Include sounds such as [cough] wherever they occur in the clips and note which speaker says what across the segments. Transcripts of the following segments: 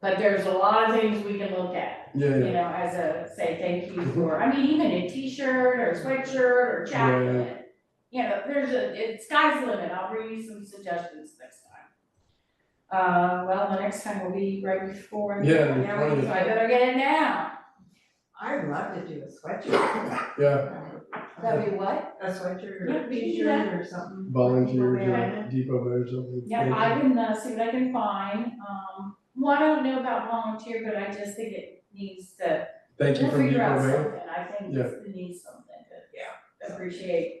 Speaker 1: But there's a lot of things we can look at,
Speaker 2: Yeah, Mm-hmm.
Speaker 1: you
Speaker 2: yeah,
Speaker 1: know, as a, say, thank you for, I mean, even a t-shirt or sweatshirt or jacket. You know, there's a, it, sky's the limit, I'll bring you some suggestions next time. Uh, well, the next time will be right before. the-
Speaker 2: Yeah, the
Speaker 1: Now,
Speaker 2: twentieth.
Speaker 1: So I better get it now.
Speaker 3: I'd love to do a sweatshirt.
Speaker 2: yeah,
Speaker 1: That'd be what?
Speaker 3: A sweatshirt or
Speaker 1: Yeah,
Speaker 3: a
Speaker 1: we can do that.
Speaker 3: t-shirt or something.
Speaker 2: volunteer,
Speaker 3: People wear
Speaker 2: yeah, depot or something.
Speaker 1: Yeah, I can uh, see what I can find, um, well, I don't know about volunteer, but I just think it needs to, we'll
Speaker 2: Thank you from
Speaker 1: figure
Speaker 2: depot
Speaker 1: out
Speaker 2: man.
Speaker 1: something, I think
Speaker 2: Yeah.
Speaker 1: it needs something to, yeah, appreciate.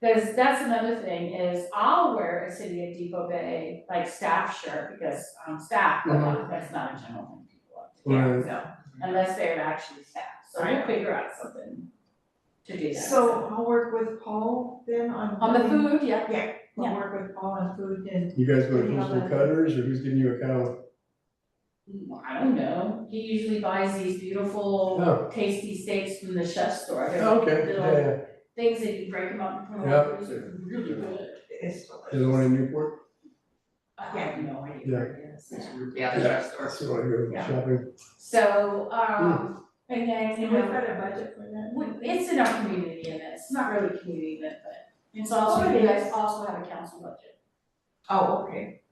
Speaker 1: Cause that's another thing is I'll wear a City of Depot Bay, like staff shirt, because I'm staff, but not- that's not a general thing people love to wear,
Speaker 2: Uh-huh. Right.
Speaker 1: so, unless they're actually staff, so we'll figure out something to do that.
Speaker 3: So I'll work with Paul then on.
Speaker 1: On the food, yeah,
Speaker 3: Yeah,
Speaker 1: Yeah.
Speaker 3: I'll work with Paul on food and
Speaker 2: You guys go to
Speaker 3: Yeah.
Speaker 2: Coastal Cutters or who's giving you a cow?
Speaker 1: I don't know, he usually buys these beautiful
Speaker 2: Oh.
Speaker 1: tasty steaks from the chef store, they're
Speaker 2: Oh,
Speaker 1: like
Speaker 2: Okay, yeah,
Speaker 1: little
Speaker 2: yeah.
Speaker 1: things that you break them up and put them
Speaker 2: Yeah.
Speaker 1: on, those are really good.
Speaker 3: it's
Speaker 2: There's one in Newport.
Speaker 1: I have no idea where it is.
Speaker 4: Yeah, the dress store.
Speaker 2: That's where I go
Speaker 1: Yeah.
Speaker 2: shopping.
Speaker 1: So, um, again, you
Speaker 3: And we've
Speaker 1: know,
Speaker 3: got a budget for that.
Speaker 1: we- it's in our community event, it's not really a community event, but it's also,
Speaker 3: Oh, it
Speaker 1: you guys
Speaker 3: is.
Speaker 1: also have a council budget,
Speaker 3: Oh, okay.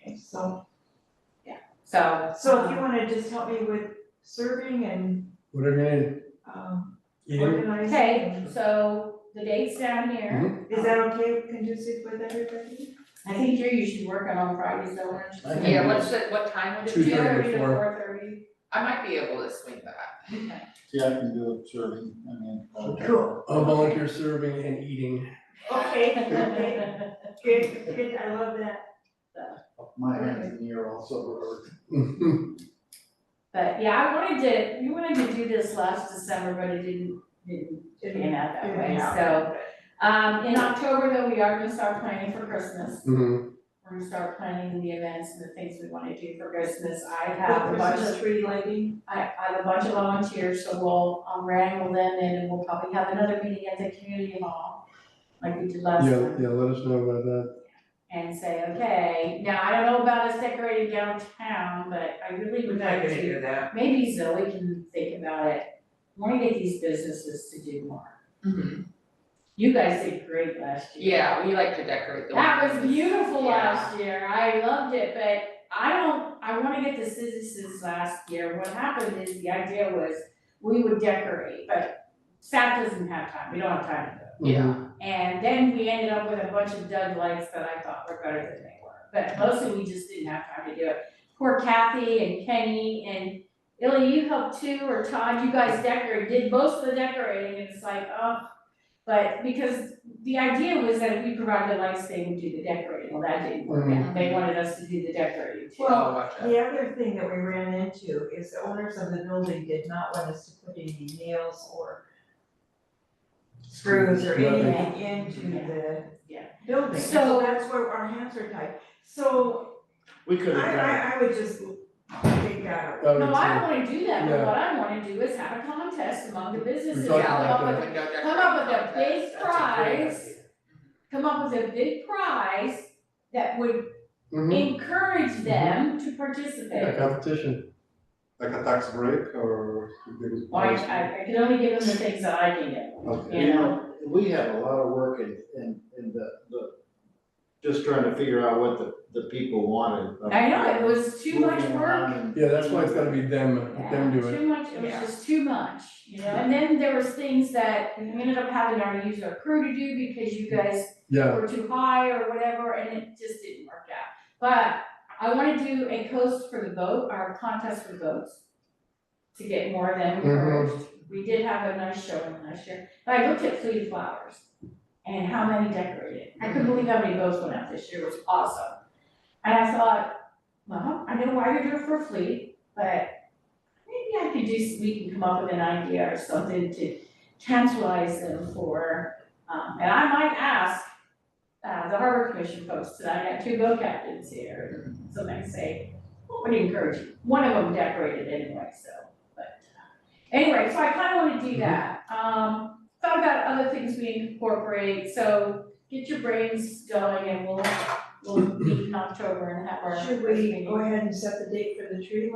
Speaker 3: Okay, so,
Speaker 1: so. um,
Speaker 3: so if you wanna just help me with serving and,
Speaker 2: Whatever you need.
Speaker 3: um,
Speaker 2: Eating,
Speaker 3: organizing.
Speaker 1: Okay, so the date's down here.
Speaker 3: Is that okay, conducive with everybody?
Speaker 1: I think you're usually working on Fridays, though, aren't you?
Speaker 2: I think
Speaker 4: Yeah, what's the, what time would it
Speaker 2: Two
Speaker 4: be?
Speaker 2: thirty.
Speaker 1: to
Speaker 2: to
Speaker 1: four thirty.
Speaker 4: I might be able to swing back.
Speaker 5: Yeah, I can do it serving, I mean. uh,
Speaker 3: Cool.
Speaker 2: uh, volunteer serving and eating. [laughs]
Speaker 3: Okay, okay, good, good, I love that.
Speaker 5: My hands and knee are also over.
Speaker 2: Mhm.
Speaker 1: [laughs] But yeah, I wanted to, we wanted to do this last December, but it didn't, didn't pan out that way, so. Um, in October though, we are gonna start planning for Christmas.
Speaker 2: Mhm.
Speaker 1: We're gonna start planning the events and the things we wanna do for Christmas. I have
Speaker 3: The
Speaker 1: a bunch
Speaker 3: Christmas
Speaker 1: of,
Speaker 3: tree lighting,
Speaker 1: I, I have a bunch of volunteers, so we'll, um, wrangle them in and we'll probably have another meeting at the community hall. Like we did last
Speaker 2: Yeah,
Speaker 1: time,
Speaker 2: yeah, let us know about that.
Speaker 1: and say, okay, now I don't know about us decorating downtown, but I really would like to.
Speaker 3: that.
Speaker 1: maybe Zoe can think about it, wanna get these businesses to do more.
Speaker 2: Mm-hmm.
Speaker 1: You guys did great last year.
Speaker 4: Yeah, we like to decorate the.
Speaker 1: That was beautiful
Speaker 4: Yeah.
Speaker 1: last year, I loved it, but I don't, I wanna get the citizens last year, what happened is the idea was we would decorate, but staff doesn't have time, we don't have time to do it.
Speaker 2: Mm-hmm.
Speaker 4: Yeah,
Speaker 1: And then we ended up with a bunch of dud lights that I thought were better than they were, but mostly we just didn't have time to do it. Poor Kathy and Kenny and Illy, you helped too, or Todd, you guys decorated, did most of the decorating, and it's like, oh. But because the idea was that if we provided the lights, they would do the decorating, well, that didn't work out,
Speaker 2: Mm-hmm.
Speaker 1: they wanted us to do the decorating too.
Speaker 3: Well,
Speaker 4: oh, watch out.
Speaker 3: The other thing that we ran into is the owners of the building did not want us to put any nails or screws or anything into the
Speaker 1: Yeah.
Speaker 3: building,
Speaker 1: So-
Speaker 3: so that's where our hands are tied. So
Speaker 5: We
Speaker 3: I
Speaker 5: could have done,
Speaker 3: I I would just take that out.
Speaker 2: I would
Speaker 1: No, I
Speaker 2: say-
Speaker 1: don't wanna do that, but
Speaker 2: Yeah.
Speaker 1: what I wanna do is have a contest among the businesses,
Speaker 2: talked
Speaker 1: come
Speaker 2: about
Speaker 1: up
Speaker 2: that.
Speaker 1: with
Speaker 4: Yeah, like the window decorating.
Speaker 1: come up with a big
Speaker 4: contest, that's a great
Speaker 1: prize, come up with a big prize that would
Speaker 2: Mhm.
Speaker 1: encourage them to
Speaker 2: Yeah,
Speaker 1: participate.
Speaker 2: competition.
Speaker 6: Like a tax break or?
Speaker 1: Why, I, I can only give them the things that I can give,
Speaker 6: Okay.
Speaker 1: you
Speaker 5: you
Speaker 1: know?
Speaker 5: know, we have a lot of work in, in, in the, the, just trying to figure out what the, the people wanted. but-
Speaker 1: I know, it was too much
Speaker 5: Moving
Speaker 1: work.
Speaker 5: around and-
Speaker 2: Yeah, that's why it's gotta be them, them do
Speaker 1: Yeah,
Speaker 2: it.
Speaker 1: Too much, it was
Speaker 4: Yeah.
Speaker 1: just too much, you know, and then there was things that we ended up having our user crew to do because you guys
Speaker 2: Yeah,
Speaker 1: or too high or whatever, and it just didn't work out. But I wanna do a coast for the boat, our contest for boats, to get more of them
Speaker 2: Mhm.
Speaker 1: encouraged. We did have a nice showing last year, but I looked at Fleet of Flowers and how many decorated. I couldn't believe how many boats went out this year, it was awesome. And I thought, well, I know why you're doing it for Fleet, but maybe I could do, we can come up with an idea or something to tantalize them for, um, and I might ask uh, the harbor commission folks tonight, I got two boat captains here, and so they say, what would encourage you? One of them decorated anyway, so, but, uh, anyway, so I kinda wanna do that. Um, thought about other things we incorporate, so get your brains going and we'll we'll meet in October and have our.
Speaker 3: Should we go ahead and set the date for the tree